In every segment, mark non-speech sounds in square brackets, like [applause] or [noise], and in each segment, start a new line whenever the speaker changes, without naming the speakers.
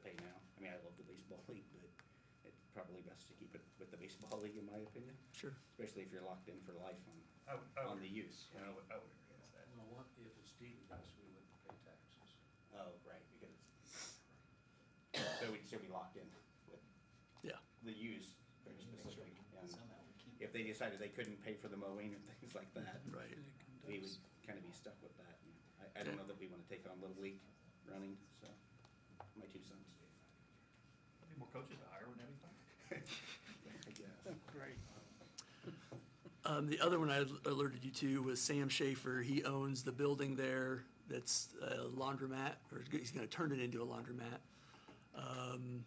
baseball [laughs] league, but it's probably best to keep it with the baseball league, in my opinion,
Sure.
especially if you're locked in for life on,
I would, I would,
on the use.
yeah, I would, I would agree with that.
No, what if it's deeded us, we wouldn't pay taxes.
Oh, right, because it's, so we'd still be locked in with
Yeah.
the use very specific. And
Somehow we keep.
if they decided they couldn't pay for the mowing and [laughs] things like that,
Right.
we would kind of be stuck with that. I, I don't know that we want to take on Little League running, so, my two sons.
Need more coaches to hire and everything.
I guess.
Great. Um, the other one I alerted you to was Sam Schaefer. He owns the building there that's a laundromat, or he's gonna turn it into a laundromat. Um,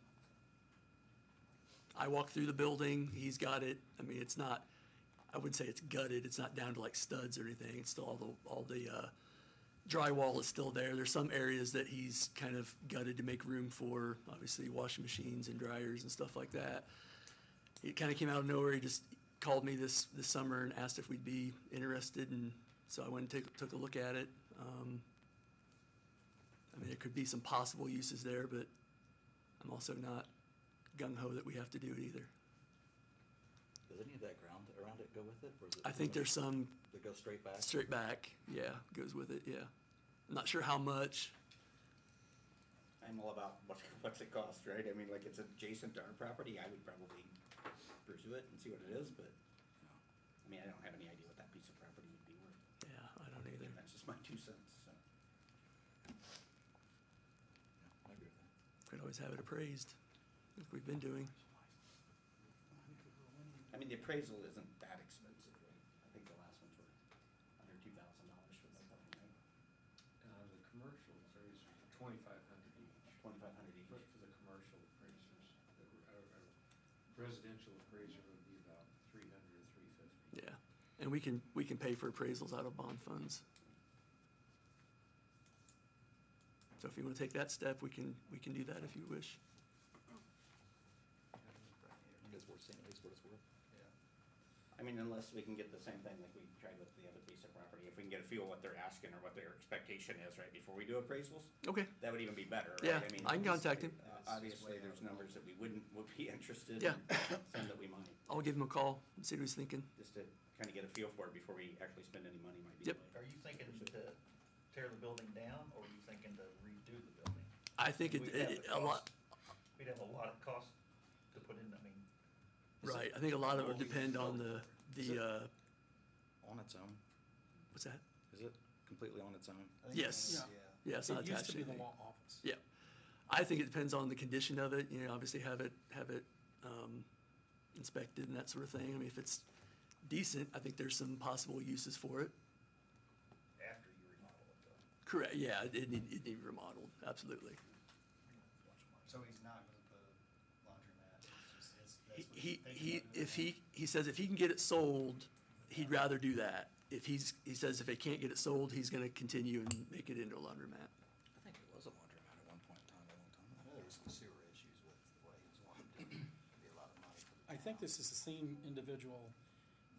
I walked through the building, he's got it, I mean, it's not, I wouldn't say it's gutted, it's not down to like studs or anything, it's still all the, all the, uh, drywall is still there. There's some areas that he's kind of gutted to make room for, obviously washing machines and dryers and stuff like that it kind of came out of nowhere. He just called me this, this summer and asked if we'd be interested, and so I went and took, took a look at it. Um, I mean, there could be some possible uses there, but I'm also not gung ho that we have to do it either.
Does any of that ground around it go with it? or is it-
I think there's some
That go straight back?
straight back, yeah, goes with it, yeah. I'm not sure how much.
I'm all about what, [laughs] what's it cost, right? I mean, like, it's adjacent to our property, I would probably pursue it and see what it is, but, you know, I mean, I don't have any idea what that piece of property would be worth.
Yeah, I don't either.
That's just my two cents, so.
Yeah, I agree with that.
Could always have it appraised, like we've been doing.
I mean, the appraisal isn't that expensive, right? I think the last ones were under two thousand dollars for the building, right?
Now, Uh, the commercial appraisers are twenty-five hundred each.
Twenty-five hundred each.
For, for the commercial appraisers, that were, our, our residential appraiser would be about three hundred, three fifty.
Yeah, and we can, we can pay for appraisals out of bond funds. So if you want to take that step, we can, we can do that if you wish.
Because we're seeing at least what it's worth.
I mean, unless we can get the same thing like we tried with the other piece of property, if we can get a feel what they're asking or what their expectation is, right, before we do appraisals,
Okay,
That would even be better, right?
Yeah,
mean,
I can contact him.
uh, Obviously, there's numbers that we wouldn't, would be [laughs] interested
Yeah.
in, some that we might,
I'll give him a call and see what he's thinking.
just to kind of get a feel for it before we actually spend any money might be.
Yep.
like-
Are you thinking to tear the building down or are you thinking to redo the building?
I think it,
We'd have
it-
the
a lot,
cost- We'd have a lot of cost to put in, I mean. is it-
right, I think a lot of it would
Well, we-
depend on the,
Is it-
the, uh,
on its own?
what's that?
Is it completely on its own?
I think
Yes.
it's-
Yeah, it's not
It used
attached
to
to
be the
anything.
law office.
Yeah. I think it depends on the condition of it, you know, obviously have it, have it um, inspected and that sort of thing. I mean, if it's decent, I think there's some possible uses for it.
After you remodel it though.
Correct, yeah, it need, it need remodeled, absolutely.
So he's not gonna put a laundromat, it's just, it's,
He,
that's what
he, he-
he's thinking about it.
if he, he says if he can get it sold, he'd rather do that. If he's, he says if they can't get it sold, he's gonna continue and make it into a laundromat.
I think it was a laundromat at one point in time, a long time
I know There was some sewer issues with the way he was wanting to, do it. it'd be a lot of money for the
I think
town.
this is the same individual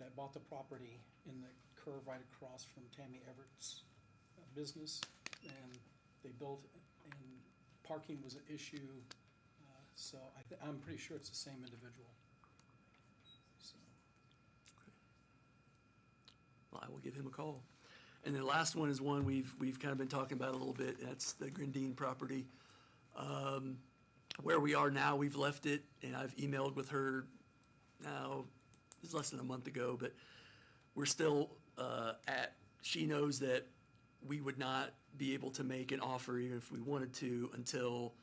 that bought the property in the curve right across from Tammy Everett's uh, business. And they built, and parking was an issue, uh, so I, thi- I'm pretty sure it's the same individual. So,
Well, I will give him a call. And the last one is one we've, we've kind of been talking about a little bit, that's the Grindine property. Um, Where we are now, we've left it, and I've emailed with her now, it was less than a month ago, but we're still uh, at, she knows that we would not be able to make an offer even if we wanted to until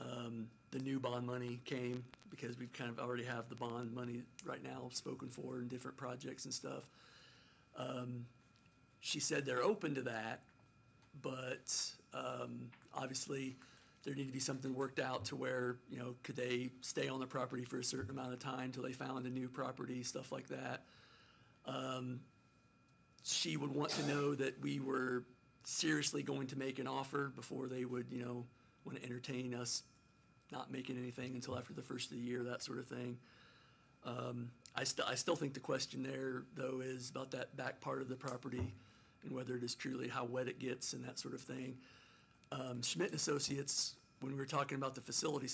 um, the new bond money came, because we've kind of already have the bond money right now spoken for in different projects and stuff she said they're open to that, but um, obviously there need to be something worked out to where, you know, could they stay on the property for a certain amount of time till they found a new property, stuff like that. Um, She would want to know that we were seriously going to make an offer before they would, you know, want to entertain us not making anything until after the first of the year, that sort of thing. I still, I still think the question there, though, is about that back part of the property and whether it is truly how wet it gets and that sort of thing. Um, Schmidt and Associates, when we were talking about the facilities